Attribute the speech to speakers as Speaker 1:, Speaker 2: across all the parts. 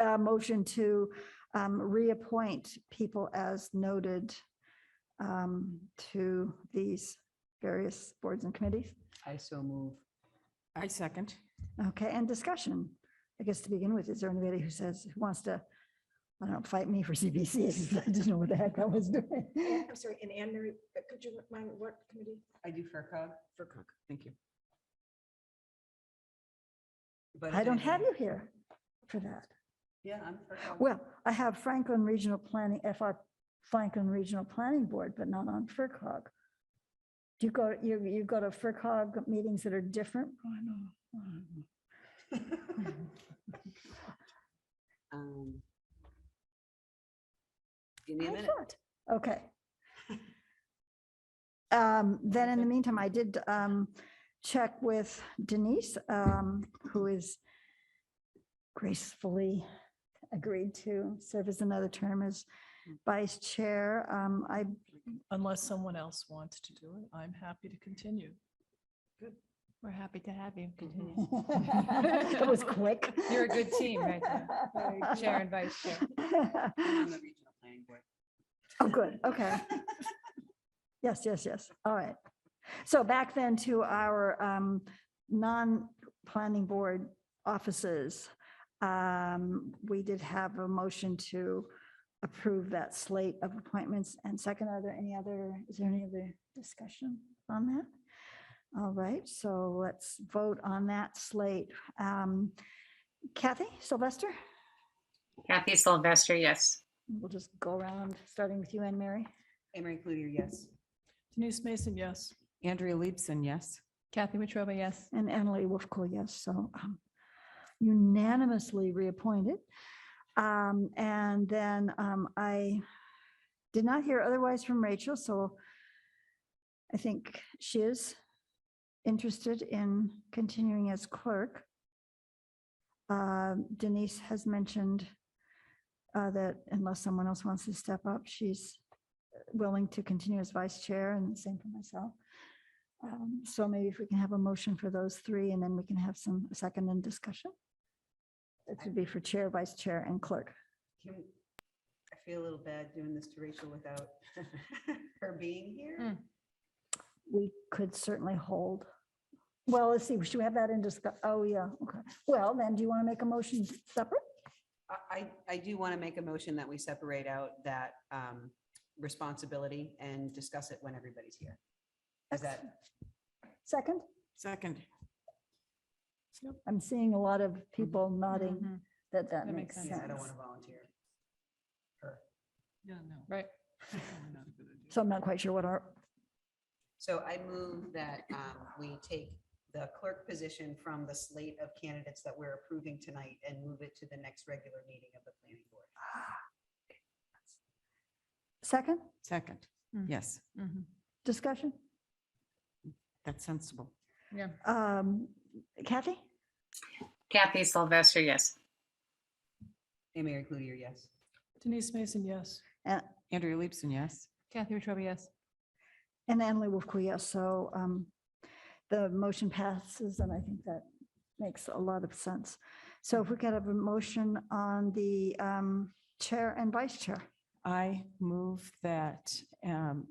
Speaker 1: a motion to um, reappoint people as noted um, to these various boards and committees.
Speaker 2: I so move.
Speaker 3: I second.
Speaker 1: Okay, and discussion. I guess to begin with, is there anybody who says, who wants to, I don't know, fight me for CBC? I didn't know what the heck I was doing.
Speaker 4: Yeah, I'm sorry, and Anne Marie, uh, could you remind me what committee?
Speaker 2: I do FERCog.
Speaker 3: Furcog, thank you.
Speaker 2: but
Speaker 1: I don't
Speaker 2: then-
Speaker 1: have you here for that.
Speaker 2: Yeah, I'm FERCog.
Speaker 1: Well, I have Franklin Regional Planning, FR Franklin Regional Planning Board, but not on FERCog. Do you go, you, you go to FERCog meetings that are different? Oh, I know. Oh, I know.
Speaker 2: Um, Give me a
Speaker 1: I
Speaker 2: minute.
Speaker 1: thought. Okay. Um, Then in the meantime, I did um, check with Denise, um, who is gracefully agreed to serve as another term as vice chair. Um, I,
Speaker 5: Unless someone else wants to do it, I'm happy to continue.
Speaker 6: We're happy to have you
Speaker 3: Mm-hmm.
Speaker 6: continue.
Speaker 1: it was quick.
Speaker 6: You're a good team right there, uh, chair and vice chair.
Speaker 2: I'm on the regional planning board.
Speaker 1: Oh, good, okay. Yes, yes, yes, all right. So back then to our um, non-planning board offices. Um, We did have a motion to approve that slate of appointments. And second, are there any other, is there any other discussion on that? All right, so let's vote on that slate. Um, Kathy Sylvester,
Speaker 7: Kathy Sylvester, yes.
Speaker 1: we'll just go around, starting with you, Anne Mary.
Speaker 2: Amory Cludier, yes.
Speaker 5: Denise Mason, yes.
Speaker 3: Andrea Leibson, yes.
Speaker 6: Kathy Wetruba, yes.
Speaker 1: And Annalee Wolfco, yes, so um, unanimously reappointed. Um, And then um, I did not hear otherwise from Rachel, so I think she is interested in continuing as clerk. Uh, Denise has mentioned uh, that unless someone else wants to step up, she's willing to continue as vice chair and same for myself. Um, So maybe if we can have a motion for those three, and then we can have some second and discussion. This would be for chair, vice chair, and clerk.
Speaker 2: Can- I feel a little bad doing this to Rachel without her being here.
Speaker 1: We could certainly hold. Well, let's see, should we have that in discuss? Oh, yeah, okay. Well, then, do you want to make a motion separate?
Speaker 2: I, I- I do want to make a motion that we separate out that um, responsibility and discuss it when everybody's here. Is that,
Speaker 1: Second,
Speaker 3: Second,
Speaker 1: I'm seeing a lot of people nodding
Speaker 6: Mhm.
Speaker 1: that Mm-hmm.
Speaker 6: That
Speaker 1: that makes
Speaker 6: makes
Speaker 1: sense.
Speaker 2: yeah, I don't want to volunteer. her.
Speaker 5: Yeah, no.
Speaker 6: Right.
Speaker 1: So I'm not quite sure what our,
Speaker 2: So I move that um, we take the clerk position from the slate of candidates that we're approving tonight and move it to the next regular meeting of the planning board.
Speaker 1: ah, second
Speaker 3: second,
Speaker 6: Mm.
Speaker 3: yes,
Speaker 6: Mhm.
Speaker 1: discussion?
Speaker 3: that's sensible.
Speaker 6: Yeah.
Speaker 1: Um, Kathy?
Speaker 7: Kathy Sylvester, yes.
Speaker 2: Mary Cludier, yes.
Speaker 5: Denise Mason, yes.
Speaker 3: Andrea Leibson, yes.
Speaker 6: Kathy Wetruba, yes.
Speaker 1: And Annalee Wolfco, yes. So um, the motion passes, and I think that makes a lot of sense. So if we could have a motion on the um, chair and vice chair.
Speaker 3: I move that um,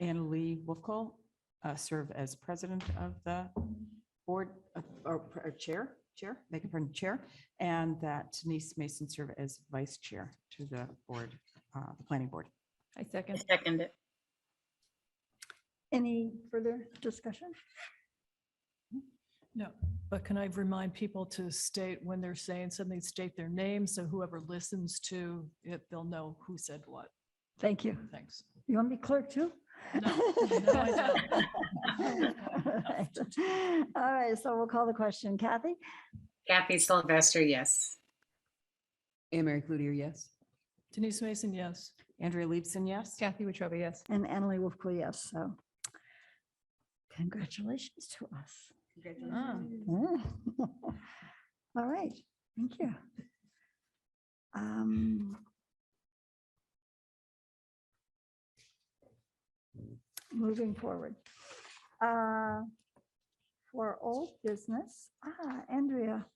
Speaker 3: Anna Lee Wolfco uh, serve as president of the board, uh, or or chair, chair, make her chair, and that Denise Mason serve as vice chair to the board, uh, planning board.
Speaker 6: I
Speaker 7: I
Speaker 6: second.
Speaker 7: second it.
Speaker 1: Any further discussion?
Speaker 5: No, but can I remind people to state when they're saying something, state their name, so whoever listens to it, they'll know who said what.
Speaker 1: Thank you.
Speaker 5: Thanks.
Speaker 1: You want to be clerk too?
Speaker 5: No, no, I don't.
Speaker 1: All right, so we'll call the question. Kathy?
Speaker 7: Kathy Sylvester, yes.
Speaker 2: Mary Cludier, yes.
Speaker 5: Denise Mason, yes.
Speaker 3: Andrea Leibson, yes.
Speaker 6: Kathy Wetruba, yes.
Speaker 1: And Annalee Wolfco, yes. So congratulations to us.
Speaker 2: Congratulations.
Speaker 1: Yeah. Mm. All right, thank you. Um, Moving forward. Uh, For old business, ah, Andrea